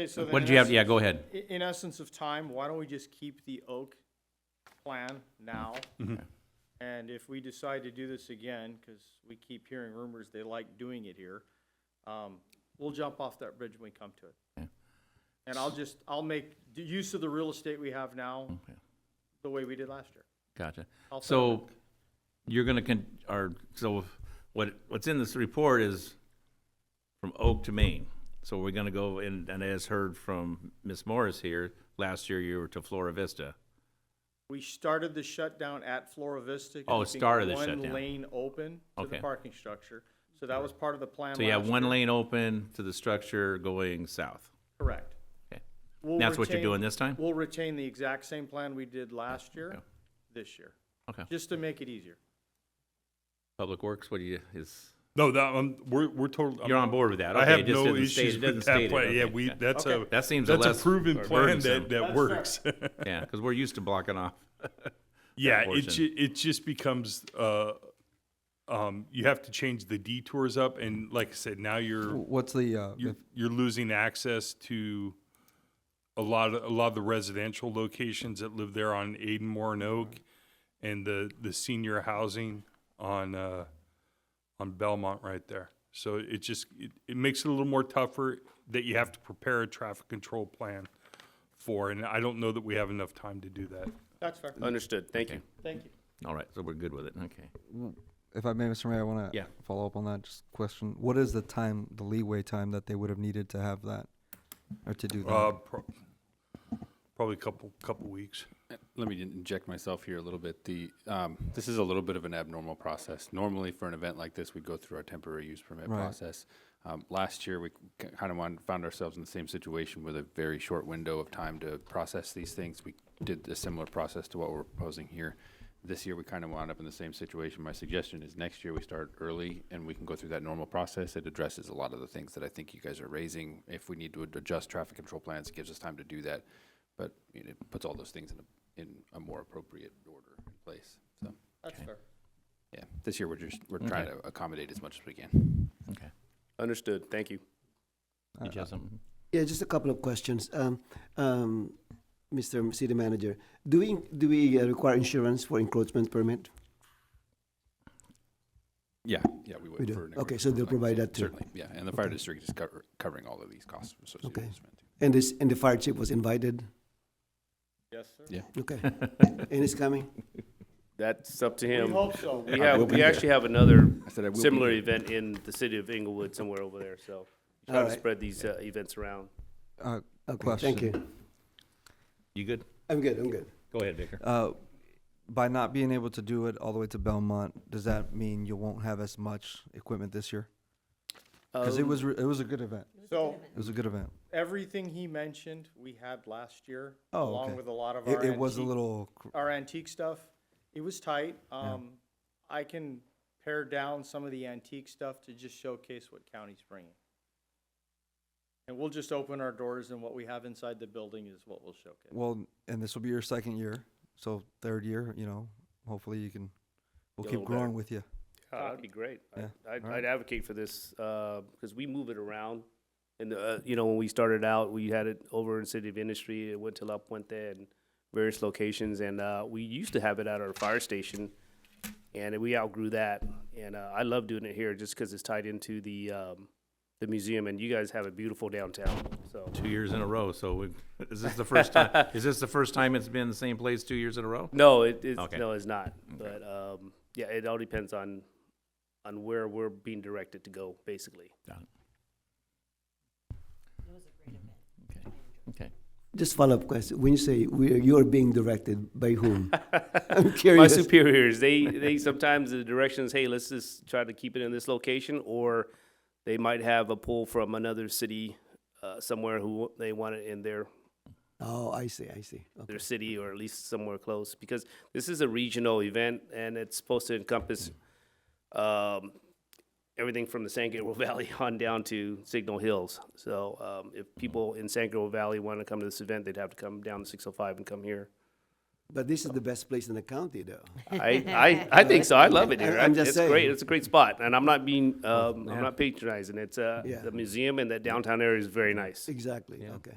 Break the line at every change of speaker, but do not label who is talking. Okay, so then
What did
in
you have,
ess-
yeah, go ahead.
i- In essence of time, why don't we just keep the oak plan now?
Mm-hmm.
And if we decide to do this again, because we keep hearing rumors they like doing it here, um, we'll jump off that bridge when we come to
Yeah.
it. And I'll just, I'll make the use of the real estate we have now
Okay.
the way we did last year.
Gotcha.
I'll
So you're gonna con, or, so what, what's in this report is from Oak to Maine. So we're gonna go, and, and as heard from Ms. Morris here, last year you were to Flora Vista.
We started the shutdown at Flora Vista.
Oh,
keeping
started the shutdown.
One lane open to the
Okay.
parking structure. So that was part of the plan
So you have
last
one
year.
lane open to the structure going south.
Correct.
Okay.
We'll
That's what you're
retain-
doing this time?
We'll retain the exact same plan we did last year,
Okay.
this year,
Okay.
just to make it easier.
Public Works, what do you, is,
No, that um, we're we're totally.
you're on board with that?
I
Okay,
have
it just
no
didn't state-
issues
it
with
didn't
that
state it.
plan. Yeah,
Okay.
we that's
Okay.
a
That seems a
that's a
less
proven plan
burdensome.
that that works.
Yeah, because we're used to blocking off.
yeah, it
portion.
ju- it just becomes uh, um, you have to change the detours up, and like I said, now you're
What's the, uh,
you're, you're losing access to a lot of a lot of the residential locations that live there on Aidenmore and Oak, and the the senior housing on uh, on Belmont right there. So it just it, it makes it a little more tougher that you have to prepare a traffic control plan for, and I don't know that we have enough time to do that.
That's fair.
Uh,
Understood, thank you.
Thank you.
All right, so we're good with it, okay.
if I may, Mr. Mayor, I want to
Yeah.
follow up on that just question. What is the time, the leeway time that they would have needed to have that or to do that?
Uh, pro- probably a couple couple weeks.
Let me inject myself here a little bit. The, um, this is a little bit of an abnormal process. Normally, for an event like this, we'd go through our temporary use permit
Right.
process. Um, last year, we kind of found ourselves in the same situation with a very short window of time to process these things. We did a similar process to what we're proposing here. This year, we kind of wound up in the same situation. My suggestion is next year we start early and we can go through that normal process. It addresses a lot of the things that I think you guys are raising. If we need to ad- adjust traffic control plans, it gives us time to do that. But you know, it puts all those things in a, in a more appropriate order and place. So,
That's fair.
yeah, this year we're just, we're trying to accommodate as much as we can.
Understood, thank you.
Did you have something?
Yeah, just a couple of questions. Um, um, Mr. City Manager, do we, do we uh, require insurance for encroachment permit?
Yeah, yeah, we would.
We do.
for an
Okay,
agreement
so they'll
like
provide
this.
that too.
Certainly, yeah, and the fire district is cover- covering all of these costs associated
Okay.
with this. event.
And this, and the fire chief was invited?
Yes, sir.
Yeah.
Okay. And it's coming?
That's up to
We
him.
hope so.
We
I
have,
will be
we
there.
actually have another
I said I will be
similar
there.
event in the city of Inglewood somewhere over there, so. Try
All
to
right.
spread these, uh, events around.
uh,
Okay, thank you.
You good?
I'm good, I'm good.
Go ahead, Vicar.
Uh, by not being able to do it all the way to Belmont, does that mean you won't have as much equipment this year? Because it
Um,
was re- it was a good event.
So
It was a good event.
everything he mentioned, we had last year,
Oh,
along
okay.
with a lot of our
It, it was a
antique-
little. cr-
our antique stuff. It was tight. Um, I can pare down some of the antique stuff to just showcase what county's bringing. And we'll just open our doors and what we have inside the building is what we'll showcase.
Well, and this will be your second year, so third year. You know, hopefully you can. We'll
Get a
keep
little better.
growing with you.
Oh, That'd be great. I-
Yeah,
I'd,
alright.
I'd advocate for this, uh, because we move it around. And, uh, you know, when we started out, we had it over in City of Industry, it went to La Puente and various locations, and, uh, we used to have it at our fire station. And we outgrew that, and, uh, I love doing it here just because it's tied into the, um, the museum, and you guys have a beautiful downtown, so.
Two years in a row, so we, is this the first time, is this the first time it's been the same place two years in a row?
No, it is,
Okay.
no, it's not, but, um, yeah, it all depends on, on where we're being directed to go, basically.
Okay, okay.
Just follow-up question. When you say we, you're being directed, by whom? I'm
my
curious.
superiors they they sometimes the directions hey let's just try to keep it in this location or they might have a pull from another city uh, somewhere who they want it in their
Oh, I see, I see. Okay.
their city or at least somewhere close because this is a regional event and it's supposed to encompass um, everything from the San Gabriel Valley on down to Signal Hills. So oh um, if people in San Gabriel Valley want to come to this event, they'd have to come down to 605 and come here.
But this is the best place in the county, though.
I, I, I think so. I love it here.
I'm just
it's
saying.
great. It's a great spot, and I'm not being um, I'm not patronizing. It's uh,
Yeah.
the museum and the downtown area is very nice.
Exactly, okay.